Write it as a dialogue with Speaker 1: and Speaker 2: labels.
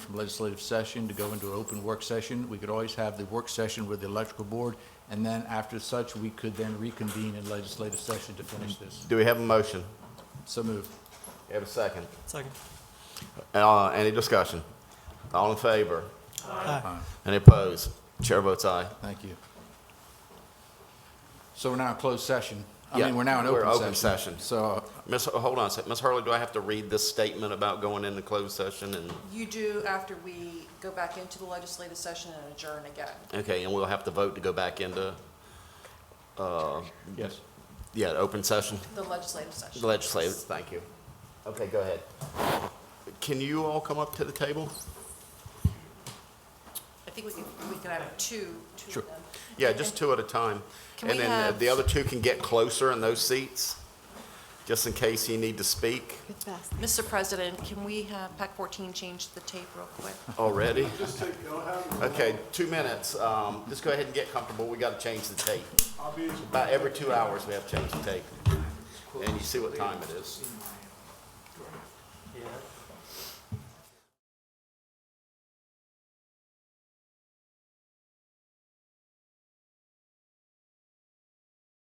Speaker 1: from legislative session to go into an open work session. We could always have the work session with the electrical board, and then after such, we could then reconvene in legislative session to finish this.
Speaker 2: Do we have a motion?
Speaker 1: So moved.
Speaker 2: We Have a second?
Speaker 3: Second.
Speaker 2: Uh, Any discussion? All in favor?
Speaker 3: Aye.
Speaker 2: Any opposed? Chair votes aye.
Speaker 1: Thank you. So we're now in closed session. I mean,
Speaker 2: Yeah,
Speaker 1: we're now in
Speaker 2: we're
Speaker 1: open session.
Speaker 2: open session.
Speaker 1: So,
Speaker 2: Ms., Hu- hold on a sec. Ms. Hurley, do I have to read this statement about going into closed session and,
Speaker 4: You do after we go back into the legislative session and adjourn again.
Speaker 2: okay, and we'll have to vote to go back into,
Speaker 1: yes.
Speaker 2: yeah, open session?
Speaker 4: The legislative session.
Speaker 2: Legislative, thank you. Okay, go ahead. Can you all come up to the table?
Speaker 4: I think we could, we could have two, two
Speaker 2: Sure.
Speaker 4: of them.
Speaker 2: Yeah, just two at a time.
Speaker 4: Can
Speaker 2: And
Speaker 4: we
Speaker 2: then uh,
Speaker 4: have-
Speaker 2: the other two can get closer in those seats, just in case you need to speak
Speaker 4: Mr. President, can we have PAC 14 change the tape real quick?
Speaker 2: already. Okay, two minutes. Um, Just go ahead and get comfortable. We got to change the tape. About every two hours, we have to change the tape. And you see what time it is.
Speaker 5: Yeah.